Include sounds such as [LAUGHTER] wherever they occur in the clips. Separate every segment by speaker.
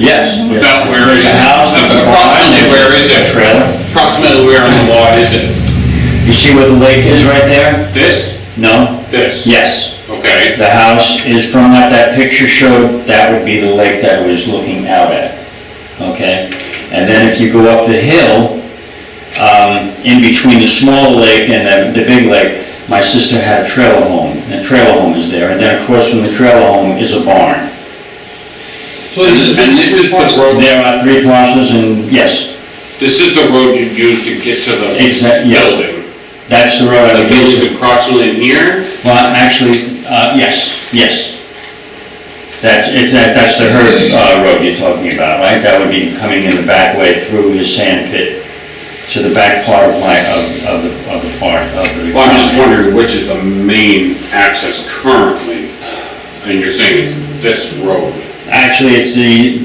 Speaker 1: Yes. yes.
Speaker 2: About where
Speaker 1: There's
Speaker 2: is
Speaker 1: a
Speaker 2: it?
Speaker 1: house with a barn,
Speaker 2: Approximately where is it?
Speaker 1: there's a trailer.
Speaker 2: Approximately where on the lot is it?
Speaker 1: You see where the lake is right there?
Speaker 2: This?
Speaker 1: No?
Speaker 2: This?
Speaker 1: Yes.
Speaker 2: Okay,
Speaker 1: The house is from what that picture showed, that would be the lake that I was looking out at, okay? And then if you go up the hill, um, in between the small lake and the, the big lake, my sister had a trailer home, and trailer home is there, and then across from the trailer home is a barn.
Speaker 3: So this is.
Speaker 2: And this is the road-
Speaker 1: There are three parcels, and yes,
Speaker 2: this is the road you used to get to the
Speaker 1: exact, yeah,
Speaker 2: building.
Speaker 1: that's the road I
Speaker 2: The
Speaker 1: would use.
Speaker 2: building's approximately in here,
Speaker 1: Well, actually, uh, yes, yes. That's, it's, that- that's the Herb, uh, road you're talking about, right? That would be coming in the back way through his sand pit to the back part of my, of, of the, of the park, of the.
Speaker 2: well, I'm just wondering which is the main access currently? And you're saying it's this road?
Speaker 1: Actually, it's the,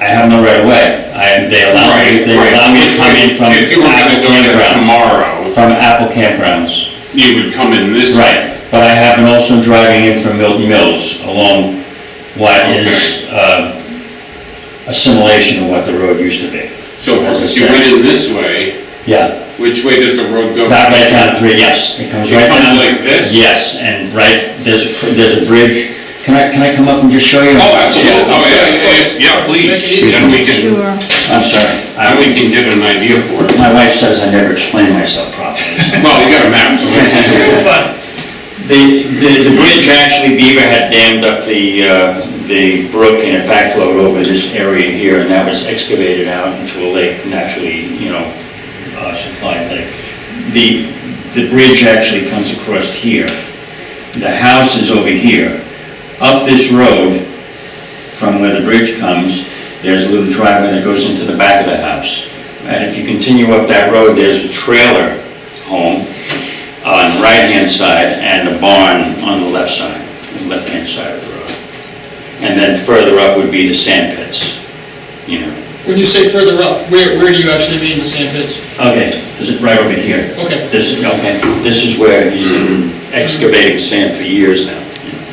Speaker 1: I have no right of way. I, they allow, me- they allow me to come in from
Speaker 2: If you were gonna
Speaker 1: Apple
Speaker 2: go there
Speaker 1: campgrounds.
Speaker 2: tomorrow,
Speaker 1: From Apple campgrounds.
Speaker 2: you would come in this way.
Speaker 1: Right, but I have been also driving in from Milton Mills along what is uh, assimilation of what the road used to be.
Speaker 2: So
Speaker 1: As I
Speaker 2: if you
Speaker 1: said.
Speaker 2: went in this way,
Speaker 1: Yeah,
Speaker 2: which way does the road go?
Speaker 1: about right down three, yes, it comes
Speaker 2: It
Speaker 1: right
Speaker 2: comes
Speaker 1: down.
Speaker 2: like this?
Speaker 1: Yes, and right, there's, a- there's a bridge. Can I, can I come up and just show you?
Speaker 2: Oh, absolutely,
Speaker 1: Yeah,
Speaker 2: oh, yeah, yeah, yeah, yeah, please, then we can,
Speaker 4: Sure.
Speaker 1: I'm sorry,
Speaker 2: then we
Speaker 1: I-
Speaker 2: can get an idea for it.
Speaker 1: my wife says I never explain myself properly.
Speaker 2: Well, you got a map, so it's easier.
Speaker 1: The, the, the bridge, actually Beaver had dammed up the, uh, the brook and it backflowed over this area here and that was excavated out into a lake, naturally, you know, uh, supplied lake. The, the bridge actually comes across here. The house is over here. Up this road, from where the bridge comes, there's a little driveway that goes into the back of the house. And if you continue up that road, there's a trailer home on the right-hand side and a barn on the left side, the left-hand side of the road. And then further up would be the sand pits, you know.
Speaker 3: When you say further up, where, where do you actually mean the sand pits?
Speaker 1: Okay, this is right over here.
Speaker 3: Okay.
Speaker 1: This is, okay, this is where he's been excavating sand for years now. you know,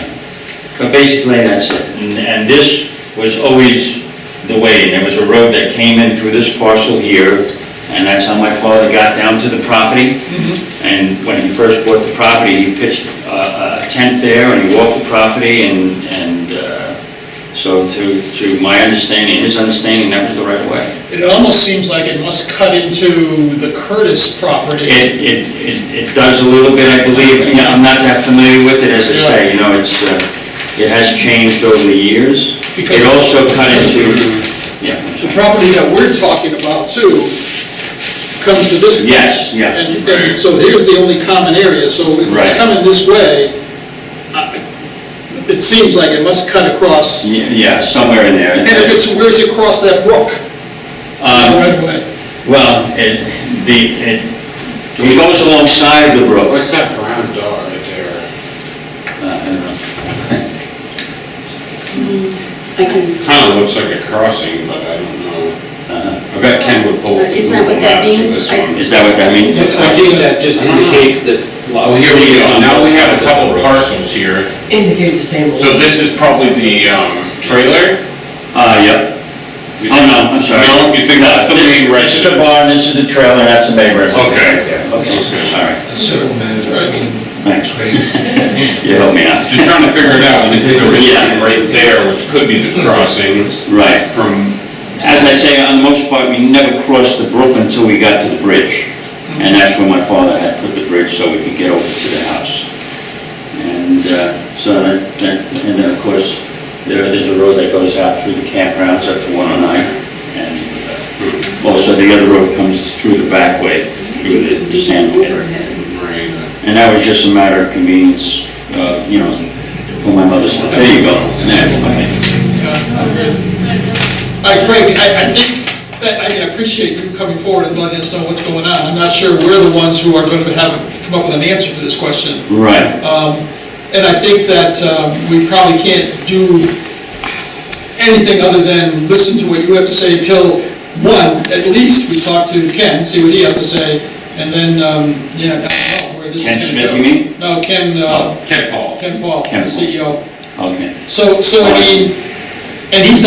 Speaker 1: so. But basically, that's it. And- And this was always the way, and there was a road that came in through this parcel here, and that's how my father got down to the property. And when he first bought the property, he pitched uh, a tent there, and he walked the property, and, and uh, so to, to my understanding, his understanding, that was the right way.
Speaker 3: It almost seems like it must cut into the Curtis property.
Speaker 1: It, it, it it does a little bit, I believe, you know, I'm not that familiar with it, as I say, you know, it's, uh, it has changed over the years. It
Speaker 3: Because-
Speaker 1: also cut into, yeah,
Speaker 3: The property that we're talking about too comes to this. way.
Speaker 1: Yes, yeah.
Speaker 3: And, and so here's the only common area, so if
Speaker 1: Right.
Speaker 3: it's coming this way, I- it seems like it must cut across. And
Speaker 1: yeah, yeah, somewhere in there.
Speaker 3: if it's, where's it across that brook?
Speaker 1: Um,
Speaker 3: Right away.
Speaker 1: Well, it, the, it, it goes alongside the brook.
Speaker 2: What's that brown dog right there?
Speaker 1: Uh, I don't know.
Speaker 5: I can,
Speaker 2: Kinda looks like a crossing, but I don't know.
Speaker 1: Uh-huh.
Speaker 2: I bet Ken would pull.
Speaker 5: Uh, Isn't that what that
Speaker 2: Google
Speaker 5: means?
Speaker 2: Maps for this one.
Speaker 1: Is that what that means?
Speaker 6: I think that just indicates that.
Speaker 2: Oh, here we go, now we have a couple parcels here.
Speaker 7: indicates the same.
Speaker 2: So this is probably the, um, trailer?
Speaker 1: Uh, yep. Oh, no, I'm sorry.
Speaker 2: No, you think that's the
Speaker 1: This-
Speaker 2: main
Speaker 1: This is the
Speaker 2: residence?
Speaker 1: barn, this is the trailer, that's the main residence.
Speaker 2: Okay.
Speaker 1: Okay, all right,
Speaker 6: Civil matter.
Speaker 1: thanks. You helped me out.
Speaker 2: Just trying to figure it out, because there is
Speaker 1: Yeah.
Speaker 2: one right there, which could be the crossing
Speaker 1: [LAUGHS] Right.
Speaker 2: from
Speaker 1: As I say, on the most part, we never crossed the brook until we got to the bridge. And that's where my father had put the bridge so we could get over to the house. And uh, so that, that, and then of course, there, there's a road that goes out through the campgrounds up to 109. And uh, also the other road comes through the back way, through the the sand pit.
Speaker 2: Right.
Speaker 1: And that was just a matter of convenience, uh, you know, for my mother's. There you go. That's fine.
Speaker 3: All right, Greg, I, I think, that- I mean, I appreciate you coming forward and letting us know what's going on. I'm not sure we're the ones who are going to have, come up with an answer to this question.
Speaker 1: Right.
Speaker 3: And I think that um, we probably can't do anything other than listen to what you have to say till, one, at least we talk to Ken, see what he has to say, and then, um, yeah, I don't know where this is
Speaker 1: Ken
Speaker 3: going to go.
Speaker 1: Smith, you mean? Oh.
Speaker 3: No, Ken, uh,
Speaker 2: Ken Paul.
Speaker 3: Ken Paul, E
Speaker 1: Ken Paul.
Speaker 3: the CEO.
Speaker 1: Okay.
Speaker 3: So, so I mean, and he's not